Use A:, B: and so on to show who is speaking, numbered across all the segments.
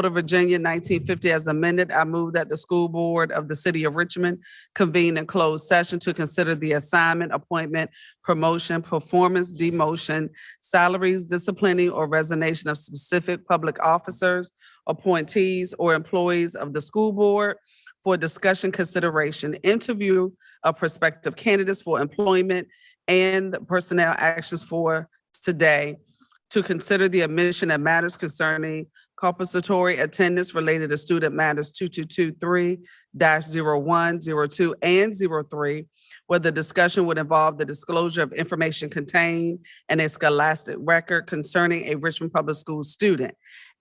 A: Code of Virginia nineteen fifty as amended, I move that the school board of the city of Richmond convene in closed session to consider the assignment, appointment, promotion, performance, demotion, salaries, disciplining, or resignation of specific public officers, appointees, or employees of the school board for discussion, consideration, interview of prospective candidates for employment and personnel actions for today to consider the admission of matters concerning compensatory attendance related to student matters two-two-two-three dash zero-one, zero-two, and zero-three, where the discussion would involve the disclosure of information contained in a scholastic record concerning a Richmond Public Schools student,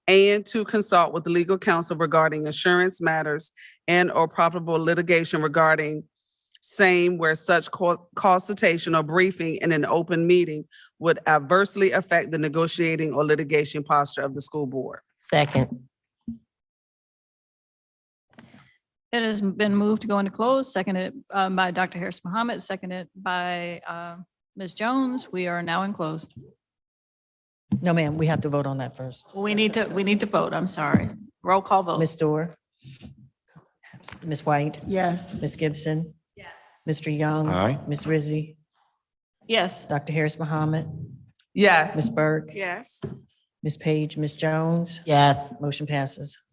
A: and to consult with legal counsel regarding insurance matters and/or probable litigation regarding same where such co- consultation or briefing in an open meeting would adversely affect the negotiating or litigation posture of the school board.
B: Second.
C: It has been moved to go into close, seconded um, by Dr. Harris Mohammed, seconded by uh, Ms. Jones. We are now in closed.
B: No, ma'am, we have to vote on that first.
C: We need to, we need to vote. I'm sorry. Roll call vote.
B: Ms. Dorr? Ms. White?
D: Yes.
B: Ms. Gibson? Yes. Mr. Young?
E: Aye.
B: Ms. Rizzi?
C: Yes.
B: Dr. Harris Mohammed?
A: Yes.
B: Ms. Burke?
D: Yes.
B: Ms. Page? Ms. Jones? Yes. Motion passes.